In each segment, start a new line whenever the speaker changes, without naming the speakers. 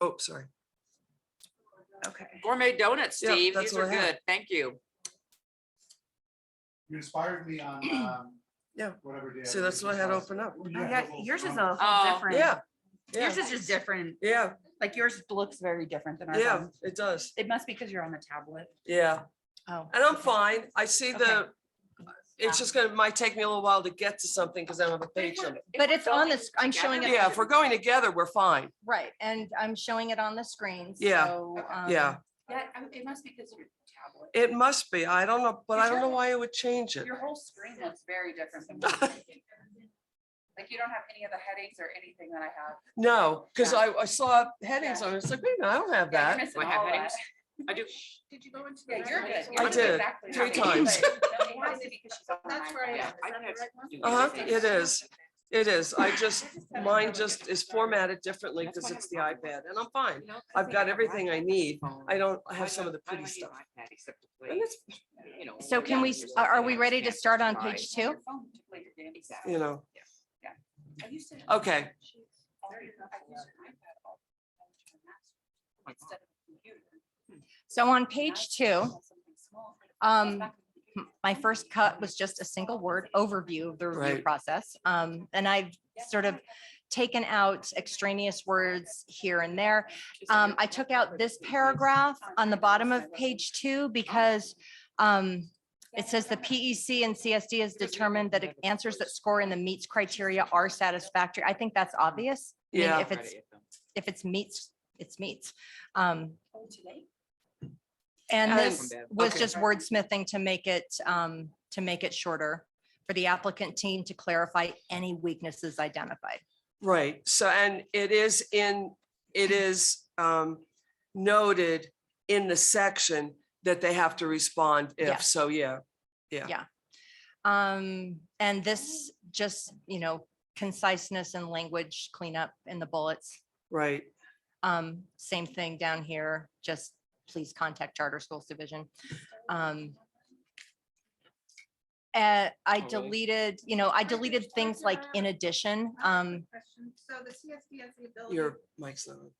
Oh, sorry.
Okay.
Gourmet donuts,
Yeah,
Steve.
that's
These
what
are
I had.
good. Thank you.
You inspired me on, um.
Yeah.
Whatever day.
See, that's what I had open up.
Oh, yeah, yours is a
Oh.
whole different.
Yeah. Yeah,
Yours is just different.
yeah,
Like yours looks very different than ours.
yeah,
does.
it does.
It must be because you're on the tablet.
Yeah,
Oh.
and I'm fine. I see the,
Okay.
it's just gonna, might take me a little while to get to something because I don't have a page number.
But it's on this, I'm showing it,
Yeah, if we're going together, we're fine.
right, and I'm showing it on the screen,
Yeah,
so. um,
Yeah,
Yeah, it must be because your tablet.
it must be. I don't know, but I don't know
Sure.
why it would change it.
Your whole screen looks very different than. mine. Like you don't have any of the headings or anything that I have.
No, because
Yeah.
I, I saw headings
Yeah.
on it. It's like, wait a minute, I don't have
Yeah, you're
that.
missing
Do I have
all that.
headings? I do.
Did you go into?
Yeah,
the
you're
right
good.
one?
You're
I
good.
did,
Exactly
three
right.
times.
But no, it has to be 'cause she's on the
That's
iPhone.
where I
Yeah, I
am. Is that
had
the right one?
to do
Uh-huh,
everything.
it is. It is. I just,
Just have to
mine
look
just
at
is
the phone.
formatted differently
That's
because
why I
it's the
have a problem
iPad and I'm fine.
No, I
I've
think
got
have
everything I need.
iPhone.
I don't
I
have some of the
don't- I
pretty
don't need
stuff.
an iPad except to play,
And it's,
you know,
So can we,
games or
are are
something
we
I
ready to
can't
start on
justify.
page two?
Your phone to play your games.
Exactly.
You know,
I used to have
Okay.
sheets. I used an iPad all the time to master instead of a computer.
So on
Now I
page
just
two,
have something small.
um,
Back in the
m- my first cut was just a single word overview of the review
Right.
process. Um, and I've sort of taken out extraneous words here and there. Um, I took out this paragraph on the bottom of page two because um, it says the PEC and CSD has determined that answers that score in the meets criteria are satisfactory. I think that's obvious. I mean,
Yeah.
If it's, if it's meets, it's meets. Um,
Oh, today?
and
And-
this was
Okay.
just wordsmithing to make it, um, to make it shorter for the applicant team to clarify any weaknesses identified.
right. So, and it is in, it is um noted in the section that they have to respond
Yeah.
if, so yeah.
Um, and this just, you know, conciseness and language cleanup in the bullets.
Right,
Um, same thing down here, just please contact Charter Schools Division. Um. uh, I
Oh, really?
deleted, you know, I deleted things like in addition, um,
Question. So the CSD has the ability.
your mic's not on.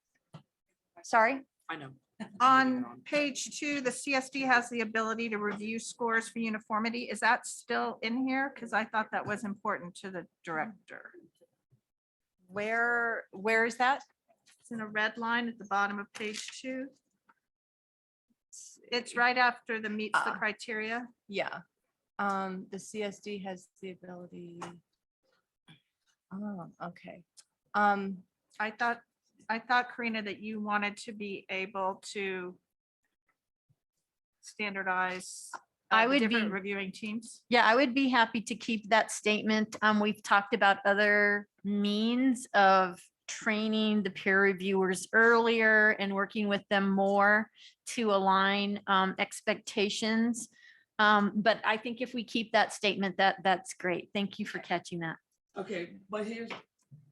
sorry,
I know.
On page two, the CSD has the ability to review scores for uniformity. Is that still in here? Because I thought that was important to the director.
where, where is that?
It's in a red line at the bottom of page two. It's right after the meets the
Ah.
criteria.
Yeah, um, the CSD has the ability. Oh, okay, um,
I thought, I thought Karina that you wanted to be able to standardize. uh,
I
the
would
different
be-
Reviewing teams.
Yeah, I would be happy to keep that statement. Um, we've talked about other means of training the peer reviewers earlier and working with them more to align um expectations. Um, but I think if we keep that statement, that that's great. Thank you for catching that.
Okay, but here's,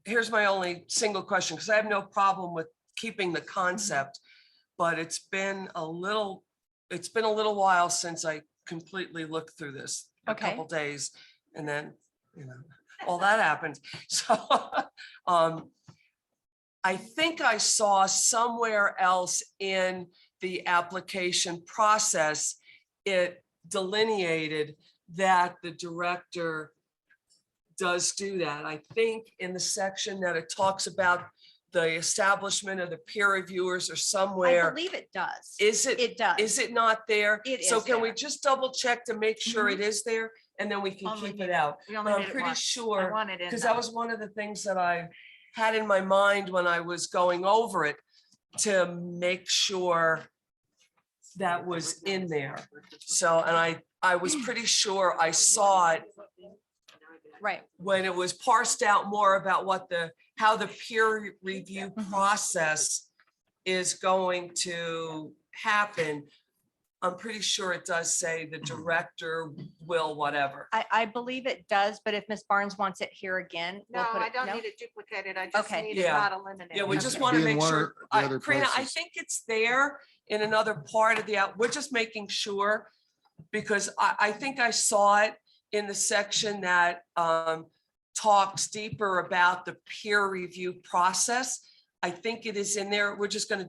here's my only single question, because I have no problem with keeping the concept. But it's been a little, it's been a little while since I completely looked through this, a
Okay.
couple days. And then, you know, all that happened. So, um, I think I saw somewhere else in the application process, it delineated that the director does do that. I think in the section that it talks about the establishment of the peer reviewers or
I
somewhere,
believe it does.
is it,
It does.
is it not there?
It
So
is
can we
there.
just double check to make sure it is there and then we can
Only
keep
need
it out?
We only
I'm
did it
pretty
once. I
sure,
want it in
Because
though.
that was one of the things that I had in my mind when I was going over it to make sure that was in there. So, and I, I was pretty sure I saw it
Right,
when it was parsed out more about what the, how the peer review
Mhm.
process is going to happen. I'm pretty sure it does say the director will whatever.
I, I believe it does, but if Ms. Barnes wants it here again. we'll
No,
put
I
it-
don't
no?
need it duplicated. I just
Okay.
need it
Yeah.
not eliminated.
Yeah, we just
Okay.
want to
Be in
make
one
sure,
or the
I-
other
Karina, I
places.
think it's there in another part of the, app. we're just making sure. Because I, I think I saw it in the section that um, talks deeper about the peer review process. I think it is in there. We're just going to